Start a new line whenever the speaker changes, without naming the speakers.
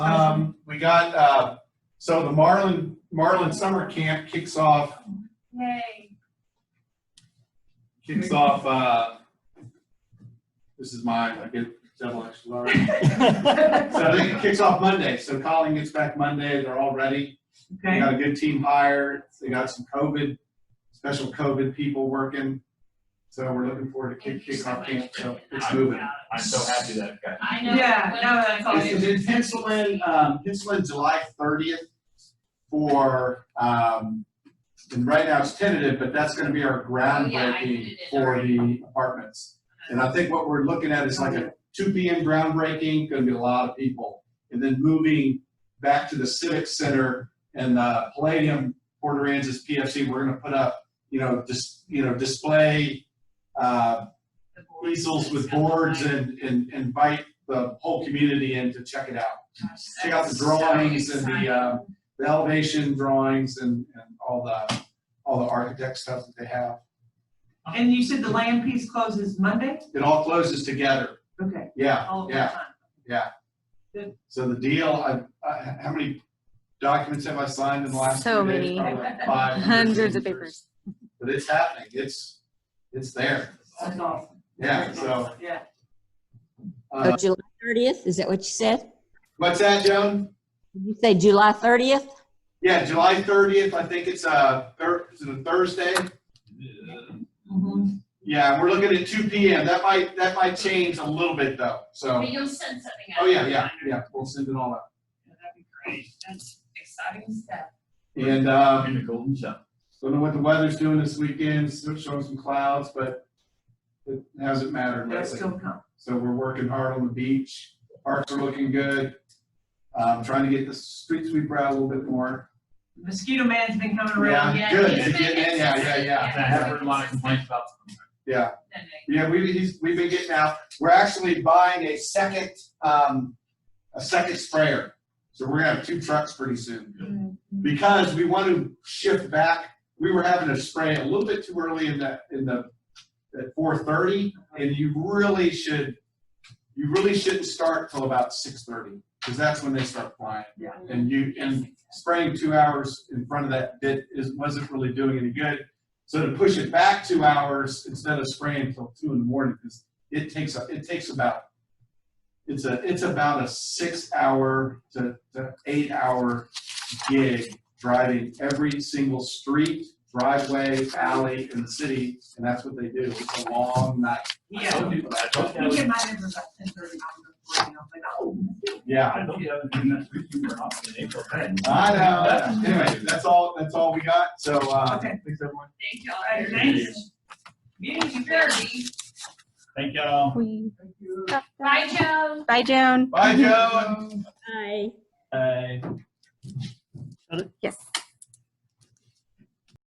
Um, we got, uh, so the Marlin, Marlin Summer Camp kicks off,
Yay.
kicks off, uh, this is mine, I get several extra large. So I think it kicks off Monday, so Colleen gets back Monday, they're all ready. They
Okay,
got a good team hire, they got some COVID, special COVID people working. So we're looking forward to kick,
Thank you
kick
so
off
much
camp,
for
so
putting
it's
that
moving.
out.
I'm so happy that it got.
I know.
yeah,
when-
no, that's all.
This is in Pencilan, um, Pencilan, July thirtieth for, um, and right now it's tentative, but that's gonna be our
Oh, yeah, I did
groundbreaking
it
for the apartments. And I think what we're looking at is like a two P M groundbreaking, gonna be a lot of people. And then moving back to the Civic Center and the Palladium, Port Aransas PFC, we're gonna put up, you know, just, you know, display, uh,
The boards
easels
and
with
stuff like
boards
that.
and, and invite the whole community in to check it out.
Gosh,
Check out the
that's
drawings
so
and the,
exciting.
uh, The elevation drawings and, and all the, all the architect stuff that they have.
And you said the land piece closes Monday?
It all closes together.
Okay,
Yeah,
Oh,
all of
yeah.
that time.
So the deal, I, I, how many documents have I signed in the last
So
few days?
many.
Probably like 500
Hundreds of
signatures.
papers.
But it's happening. It's, it's there.
That's awesome.
Yeah, so,
Yeah.
uh,
July 30th, is that what you said?
what's that, Joan?
Did you say July 30th?
Yeah, July thirtieth, I think it's a thir- is it a Thursday?
Mhm.
Yeah, and we're looking at two P M. That might, that might change a little bit though, so.
But you'll send something out.
Oh, yeah, yeah, yeah, we'll send it all out.
That'd be great. That's exciting stuff.
And, um,
In the golden shell.
don't know what the weather's doing this weekend, it's showing some clouds, but it hasn't mattered
They'll
lately.
still come.
So we're working hard on the beach. Parks are looking good. Um, trying to get the street sweeper out a little bit more.
Mosquito man's been coming around.
Yeah,
Yeah,
good.
he's been
Yeah, yeah, yeah,
consistent.
yeah.
I have heard a lot of complaints about.
Yeah,
Then they-
Yeah, we, he's, we've been getting out, we're actually buying a second, um, a second sprayer. So we're gonna have two trucks pretty soon. Because we want to shift back, we were having to spray a little bit too early in the, in the, at four thirty. And you really should, you really shouldn't start till about six thirty, because that's when they start flying.
Yeah.
And you, and spraying two hours in front of that bit is, wasn't really doing any good. So to push it back two hours instead of spraying until two in the morning, because it takes, a- it takes about, it's a, it's about a six hour to, to eight hour gig driving every single street, driveway, alley in the city, and that's what they do. It's a long night.
I
Yeah.
told you, but I told
We
you.
get mine in about ten thirty. I'm like, oh.
Yeah.
I told you, I was doing that street sweeper off in April. Hey,
I know. Anyway, that's all, that's all we got. So, uh,
Okay.
thanks everyone.
Thank y'all.
All right, thanks. Meeting adjourned.
Thirty.
Thank y'all.
We-
Bye, Joe.
Bye, Joan.
Bye, Joan.
Hi.
Bye.
Yes.